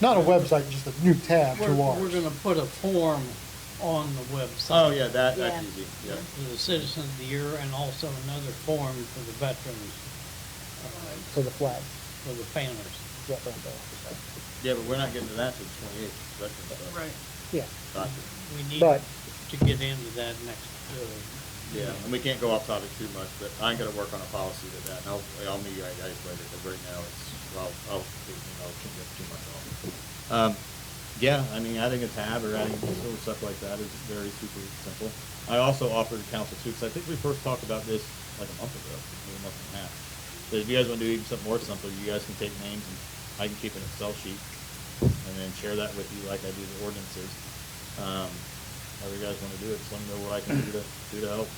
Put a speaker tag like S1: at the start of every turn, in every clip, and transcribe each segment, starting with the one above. S1: Not a website, just a new tab
S2: We're,
S1: to
S2: we're
S1: ours.
S2: gonna put a form on the website.
S3: Oh, yeah, that, that's
S4: Yeah.
S3: easy, yeah.
S2: For the Citizen of the Year and also another form for the veterans, uh,
S1: For the flag,
S2: for the families.
S1: yeah, right there.
S3: Yeah, but we're not getting to that till the twenty-eighth, Veterans Day.
S1: Yeah,
S3: Gotcha.
S2: We need
S1: But-
S2: to get into that next, uh,
S3: Yeah, and we can't go off topic too much, but I'm gonna work on a policy to that, and I'll, I'll meet you guys later, because right now it's, well, I'll, you know, can't get too much off. Um, yeah, I mean, adding a tab or adding little stuff like that is very super simple. I also offered council too, because I think we first talked about this like a month ago, maybe a month and a half. That if you guys wanna do even something more simple, you guys can take names and I can keep an Excel sheet and then share that with you like I do the ordinances. Um, however you guys wanna do it, just let me know what I can do to, do to help.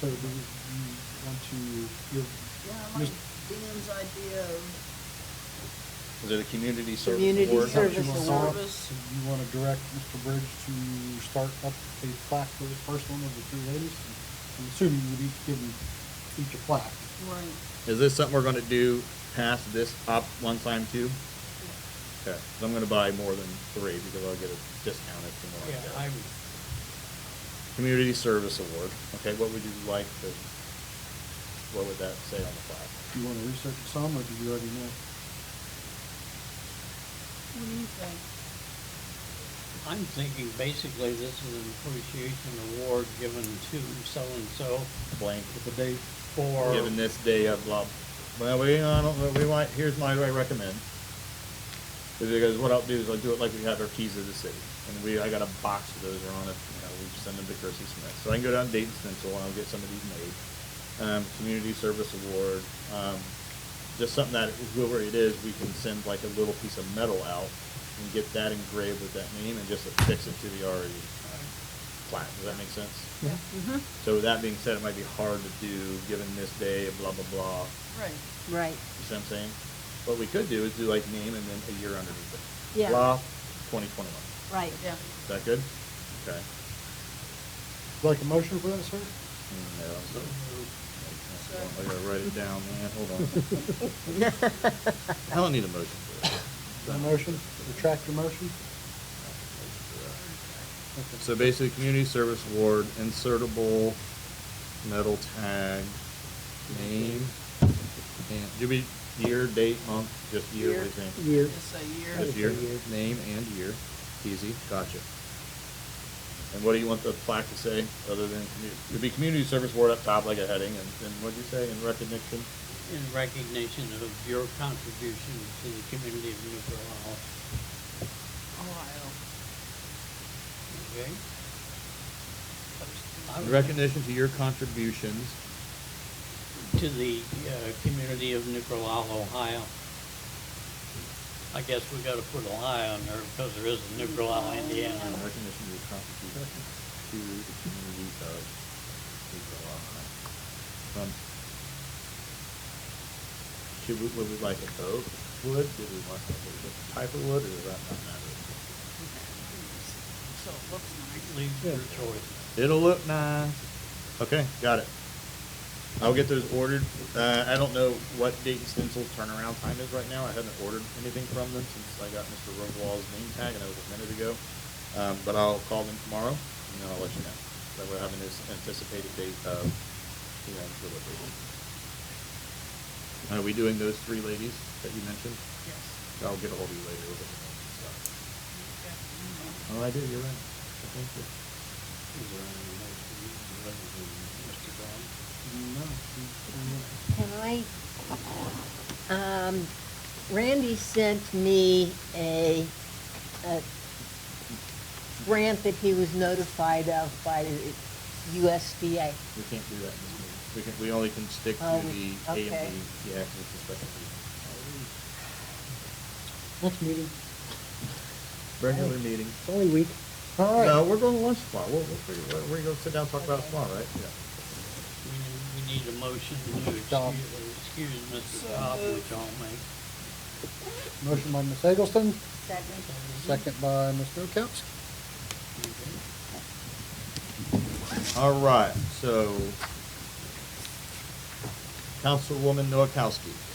S1: so do you you want to, you're,
S4: Yeah, I like Dan's idea of
S3: Is it a community service
S4: Community
S3: award?
S1: Is that what you
S4: Service
S1: wanna start
S4: award.
S1: with?
S4: Service.
S1: You want to direct Mr. Bridge to start up a plaque for the first one of the three ladies? I'm assuming you would each give them each a plaque.
S4: right.
S3: Is this something we're gonna do past this op one time too? Okay, so I'm gonna buy more than three because I'll get a discount if the more I
S2: yeah,
S3: get.
S2: I'm,
S3: Community Service Award, okay, what would you like to, what would that say on the plaque?
S1: Do you want to research some, or do you already know?
S4: What do you think?
S2: I'm thinking basically this is an appreciation award given to so-and-so
S3: Blank,
S1: With the date,
S2: for,
S3: given this day of blah, well, we, I don't, know, we might, here's my, I recommend. Because what I'll do is I'll do it like we have our keys of the city, and we, I got a box of those, are on it, you know, we send them to Chrissy Smith. So I can go down to Dayton Stencil and I'll get some of these made. Um, community service award, um, just something that whoever it is, we can send like a little piece of metal out and get that engraved with that name and just affix it to the already plaque, does that make sense?
S4: Yeah.
S5: Mm-hmm.
S3: So with that being said, it might be hard to do, given this day, blah, blah, blah,
S4: Right.
S5: Right,
S3: you see what I'm saying? What we could do is do like name and then a year underneath it.
S5: Yeah.
S3: Blah, twenty twenty-one.
S5: right.
S4: Yeah.
S3: Is that good? Okay.
S1: like a motion for that, sir?
S3: Mm, no, I'm so- I gotta write it down, man, hold on. I don't need a motion for that.
S1: No motion, retract your motion? Okay.
S3: So basically, community service award, insertable metal tag, name, and, do we, year, date, month, just year, what do you think?
S1: Year.
S4: Just a year.
S1: Good.
S3: Just year, name and year, easy, gotcha. And what do you want the plaque to say, other than, commu- it'd be community service award up top, like a heading, and, and what'd you say, in recognition?
S2: in recognition of your contribution to the community of Newport Hall.
S4: Ohio.
S2: Okay? I
S3: In
S2: would-
S3: recognition to your contributions,
S2: To the uh, community of Nicola, Ohio. I guess we gotta put Ohio in there because there is a Nicola, Indiana.
S3: in recognition to your contributions to the community of Eagle Eye. Um, Should we, would we like a oak wood, do we want a different type of wood, or does that not matter?
S4: So it looks nice.
S2: Leave your choice.
S3: It'll look nice. Okay, got it. I'll get those ordered. Uh, I don't know what Dayton Stencil's turnaround time is right now. I haven't ordered anything from them since I got Mr. Rosenwall's name tag, and that was a minute ago. Um, but I'll call them tomorrow, and then I'll let you know. That we're having this anticipated date of, you know, delivery. Are we doing those three ladies that you mentioned?
S4: Yes.
S3: I'll get ahold of you later. We'll get the names and stuff.
S4: Okay.
S3: Oh, I do, you're right. Thank you.
S2: Is there any
S5: Can I, um,
S1: No, we-
S2: motion other than Mr. Brown?
S5: Randy sent me a, a grant that he was notified of by the USDA.
S3: We can't do that in this meeting. We can, we only can stick to
S5: Oh,
S3: the A and B,
S5: okay.
S3: yeah, 'cause it's a special meeting.
S1: Next meeting,
S3: Regular meeting.
S1: it's only a week. All right.
S3: No, we're going to lunch tomorrow. We'll, we'll figure, we're, we're gonna sit down and talk about it tomorrow, right? Yeah.
S2: We need, we need a motion to
S1: Tom.
S2: excuse, excuse
S4: So
S2: Mr. Cobb,
S4: moved.
S2: which I'll make.
S1: Motion by Ms. Eggleston,
S5: Second.
S1: second by Mr. Okowski.
S2: Okay.
S3: All right, so Councilwoman Noakowski.